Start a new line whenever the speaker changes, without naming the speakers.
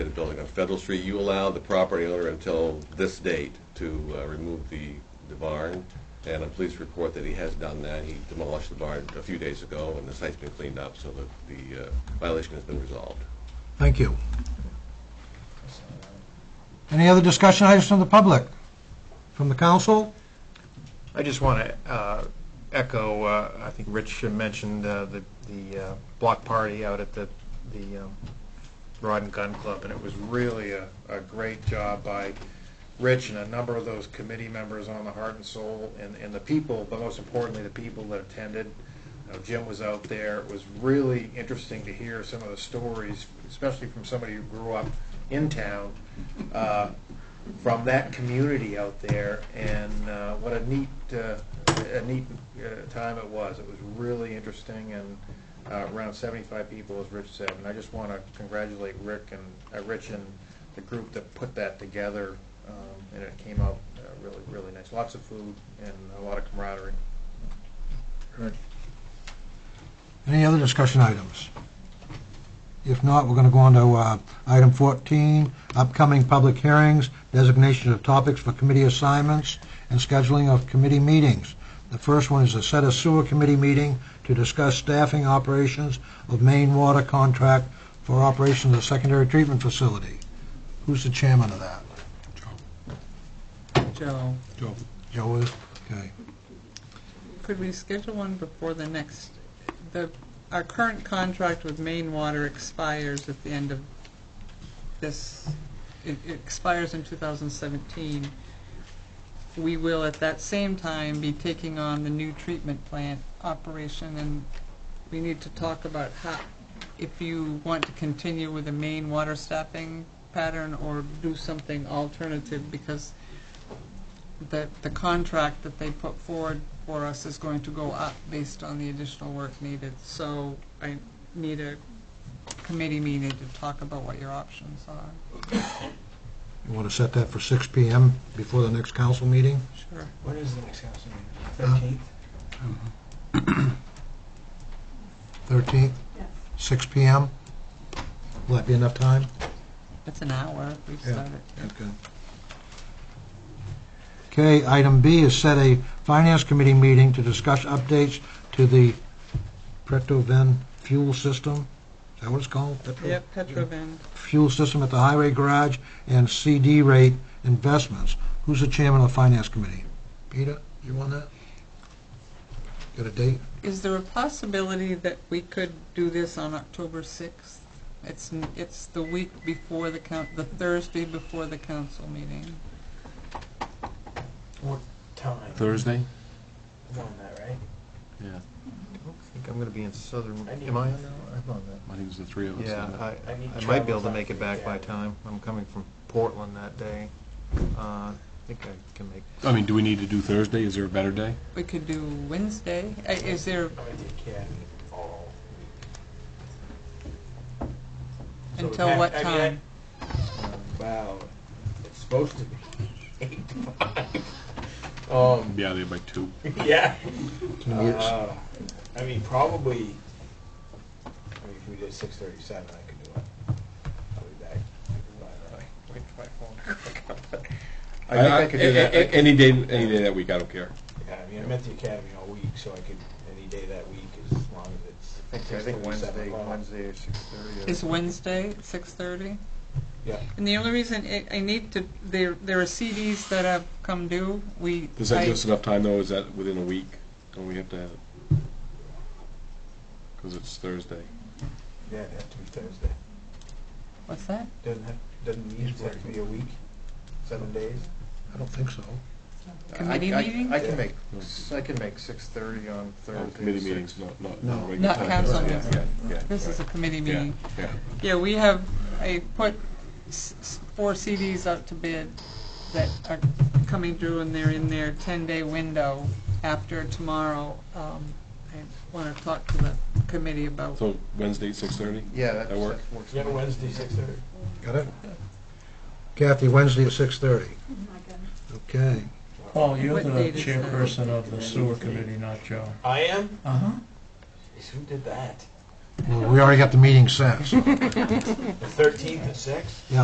building on Federal Street, you allow the property owner until this date to uh, remove the, the barn, and I'm pleased to report that he has done that. He demolished the barn a few days ago, and the site's been cleaned up, so that the uh, violation has been resolved.
Thank you. Any other discussion items from the public? From the council?
I just want to echo, uh, I think Rich mentioned uh, the the uh, block party out at the the um, Rod and Gun Club, and it was really a a great job by Rich and a number of those committee members on the Heart and Soul, and and the people, but most importantly, the people that attended. You know, Jim was out there. It was really interesting to hear some of the stories, especially from somebody who grew up in town, uh, from that community out there, and uh, what a neat, uh, a neat uh, time it was. It was really interesting, and uh, around 75 people, as Rich said. And I just want to congratulate Rick and uh, Rich and the group that put that together, um, and it came out uh, really, really nice. Lots of food and a lot of camaraderie.
Any other discussion items? If not, we're going to go on to uh, item 14, upcoming public hearings, designation of topics for committee assignments, and scheduling of committee meetings. The first one is to set a sewer committee meeting to discuss staffing operations of main water contract for operations of secondary treatment facility. Who's the chairman of that?
Joe,
Joe is? Okay.
could we schedule one before the next, the, our current contract with Maine Water expires at the end of this, it it expires in 2017. We will at that same time be taking on the new treatment plant operation, and we need to talk about how, if you want to continue with the Maine Water staffing pattern or do something alternative, because that the contract that they put forward for us is going to go up based on the additional work needed. So I need a committee meeting to talk about what your options are.
You want to set that for 6 PM before the next council meeting?
Sure.
When is the next council meeting? Thirteenth?
13th? Six PM? Will that be enough time?
It's an hour if we
Yeah.
start it.
Okay. Okay, item B is set a finance committee meeting to discuss updates to the Pretoven fuel system. Is that what it's called? Preto-
Yep, Petrovan.
Fuel system at the highway garage and CD rate investments. Who's the chairman of the finance committee? Peter, you on that? Got a date?
Is there a possibility that we could do this on October 6th? It's, n- it's the week before the coun, the Thursday before the council meeting.
What time?
Thursday?
I'm on that, right?
Yeah,
I think I'm going to be in southern.
I need-
Am I on that? I'm on that.
I think it was the three of us.
Yeah,
on it.
I,
I need
I might be able
travels
to
on
make it back by
Friday.
time. I'm coming from Portland that day. Uh, I think I can make,
I mean, do we need to do Thursday? Is there a better day?
We could do Wednesday. Uh, Is there,
I'm gonna take care of all. So
until
that-
what
I mean, I-
time?
Um, Wow, it's supposed to be eight to five. Um,
Be out of there by two.
yeah.
Can we-
Uh, I mean, probably, I mean, if we did six thirty-seven, I could do it. I'll be back. Wait for my phone.
I think I could do that.
Any day, any day that week, I don't care.
Yeah, uh, I mean, I'm at the academy all week, so I could, any day that week, as long as it's.
I think- I think
6:30, 7
Wednesday,
o'clock.
Wednesday or six thirty.
Is Wednesday, six thirty?
Yeah.
And the only reason I, I need to, there, there are CDs that have come due, we.
Does that
I-
give us enough time, though? Is that within a week? Don't we have to have it? Because it's Thursday.
Yeah, it'd have to be Thursday.
What's that?
Doesn't have, doesn't usually have to be a week, seven days.
I don't think so.
Committee meeting?
I can make,
No.
I can make six thirty on
Oh,
Thursday.
Committee
six.
meetings, not, not.
No.
regular
Not
time.
council
Yeah,
meetings.
Yeah, yeah.
This is a
right.
committee
Yeah,
meeting.
Yeah,
Yeah, we have, I put s- s- four CDs out to bid that are coming due, and they're in their ten-day window after tomorrow. Um, I wanna talk to the committee about.
so Wednesday, six-thirty?
Yeah, that
That
that
work?
works.
Yeah, Wednesday, six thirty.
Got it? Kathy, Wednesday at 6:30. Okay.
Paul, you're
What
the
date is that?
chairperson of the sewer committee, not Joe.
I am?
Uh-huh.
Jeez, Who did that?
Well, we already got the meeting set, so.
The thirteenth at six?